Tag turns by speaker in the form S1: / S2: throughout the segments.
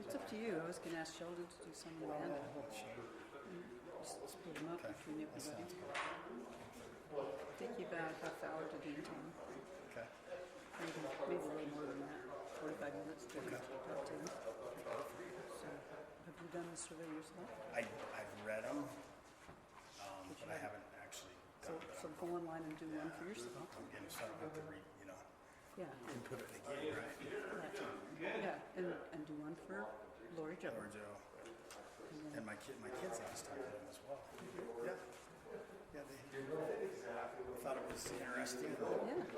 S1: It's up to you. I was going to ask Sheldon to do some of the hand. Just split them up between everybody. Take you about half hour to game time.
S2: Okay.
S1: Maybe, maybe a little more than that. Forty-five minutes to talk to them. So, have you done the survey yourself?
S2: I, I've read them, um, but I haven't actually
S1: So,
S2: done it.
S1: so go online and do one for yourself.
S2: I'm getting started with the re, you know,
S1: Yeah,
S2: input it again, right?
S1: yeah, yeah, and, and do one for Lori Jones.
S2: Or Joe. And my kid, my kids have started them as well. Yeah. Yeah, they thought it was interesting. Oh,
S1: Yeah. Okay.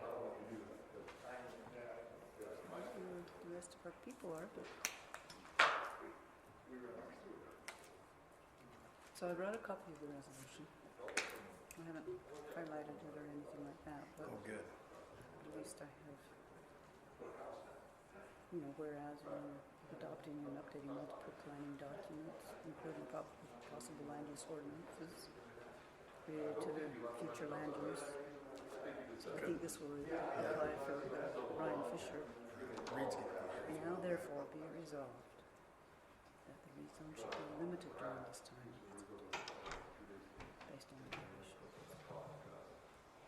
S1: I don't know where The rest of our people are, but. So I wrote a copy of the resolution. I haven't highlighted it or anything like that, but
S2: Oh, good.
S1: at least I have, you know, whereas we're adopting and updating multiple planning documents, including prob- possible land use ordinances related to the future land use. So I think this will apply for uh, Ryan Fisher.
S2: Reed's getting there.
S1: Now therefore be it resolved that the rezone should be limited during this time based on the condition.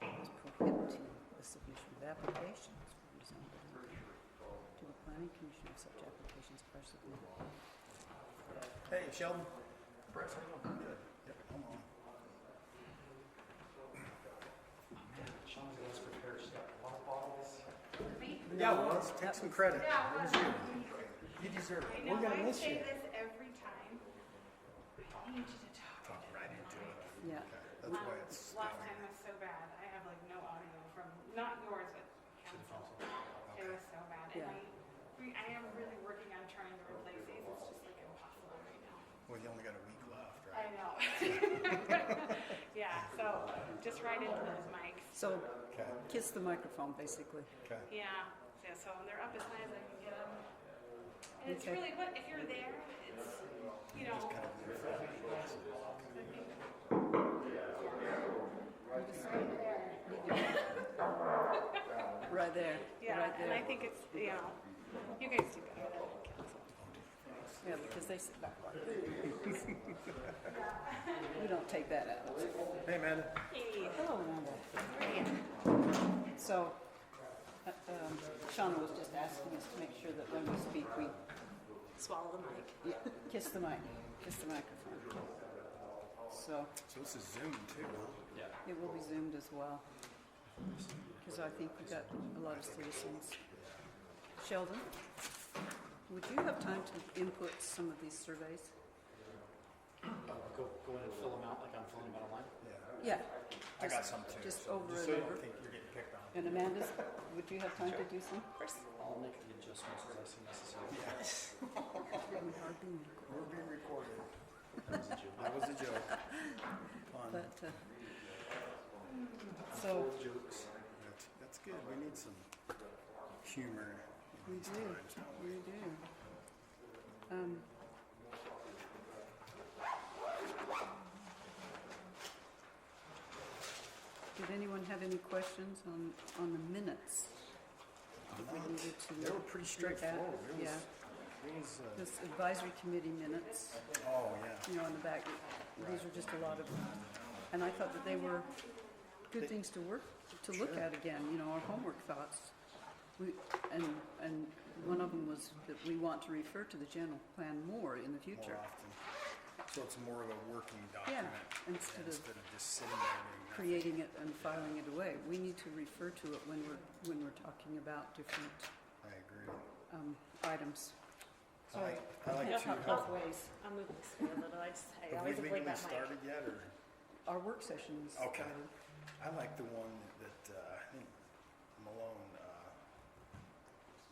S1: As prohibiting the submission of applications for rezone to the planning commission if such applications are submitted.
S2: Hey, Sheldon. Brett, how you doing? Good. Yep, I'm on.
S3: Sean's got us prepared, she's got water bottles.
S2: Yeah, well, let's take some credit.
S4: Yeah,
S2: It was
S4: well,
S2: you. You deserve
S4: I
S2: it.
S4: know,
S2: We're gonna
S4: I
S2: miss
S4: say
S2: you.
S4: this every time. I need you to talk.
S2: Talk right into it.
S1: Yeah,
S2: Okay, That's why
S4: Um,
S2: it's.
S4: Last time was so bad. I have like no audio from, not yours, but council. It was so bad. And
S1: Yeah.
S4: I, we- I am really working on trying to replace these. It's just like impossible right now.
S2: Well, you only got a week left,
S4: I
S2: right?
S4: know. Yeah, so just right into those mics.
S1: so
S2: Okay,
S1: kiss the microphone basically.
S2: okay.
S4: Yeah, yeah, so they're up as high as I can get them. And it's
S1: Okay.
S4: really, what, if you're there, it's, you know. Just right there.
S1: Right there,
S4: Yeah,
S1: right
S4: and I
S1: there.
S4: think it's, you know, you guys do better than the council.
S1: Yeah, because they sit back like this. We don't take that out.
S2: Hey, man.
S4: Hey,
S1: Hello, Amanda. So, uh, um, Shauna was just asking us to make sure that when we speak, we
S4: swallow the mic.
S1: yeah, kiss the mic, kiss the microphone. So,
S2: So this is Zoom too, huh?
S1: it will be zoomed as well. Because I think we got a lot of citizens. Sheldon, would you have time to input some of these surveys?
S3: Go, go in and fill them out like I'm filling them out online.
S2: Yeah. I
S1: Yeah.
S2: got
S1: just-
S2: some too.
S1: Just
S2: so-
S1: over
S2: just so you
S1: and
S2: don't
S1: over.
S2: think you're getting picked on.
S1: And Amanda, would you have time to do some?
S3: I'll make the adjustments as I see necessary.
S2: We're being recorded.
S3: That was a joke.
S2: That was a joke. Fun.
S1: But, uh, so,
S3: Jokes.
S2: That's- That's good. We need some humor in
S1: we
S2: these
S1: do,
S2: times, don't we?
S1: we do. Um, Did anyone have any questions on, on the minutes? That we needed to
S2: They were pretty
S1: look at?
S2: straightforward. It was,
S1: Yeah,
S2: it was, uh,
S1: this advisory committee minutes.
S2: oh, yeah.
S1: you know, in the back. These are just a lot of, and I thought that they were good things to work, to look at again, you know, our homework thoughts. We, and, and one of them was that we want to refer to the general plan more in the
S2: More
S1: future.
S2: often. So it's more of a working
S1: Yeah,
S2: document
S1: instead of
S2: instead of just sitting there doing
S1: creating it and filing it away. We need to refer to it when we're, when we're talking about different,
S2: nothing. I agree.
S1: um, items.
S2: I like- I like to help.
S5: ways. I'm moving slow, but I just, I
S2: Have we
S5: always avoid
S2: legally
S5: that mic.
S2: started yet or?
S1: Our work sessions.
S2: Okay. I like the one that, uh, I think Malone, uh,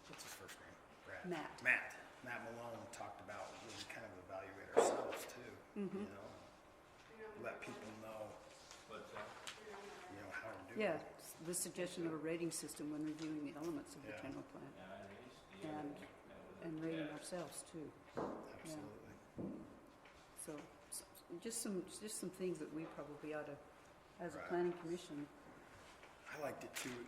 S2: what's his first name? Brad.
S1: Matt.
S2: Matt. Matt Malone talked about when we kind of evaluate ourselves too, you know? Let people know, you know, how we're doing.
S1: Yeah, s- the suggestion of a rating system when reviewing the elements of the
S2: Yeah.
S1: general plan. And, and rating ourselves too.
S2: Absolutely.
S1: So, s- just some, just some things that we probably ought to, as a
S2: Right.
S1: planning commission,
S2: I liked it too.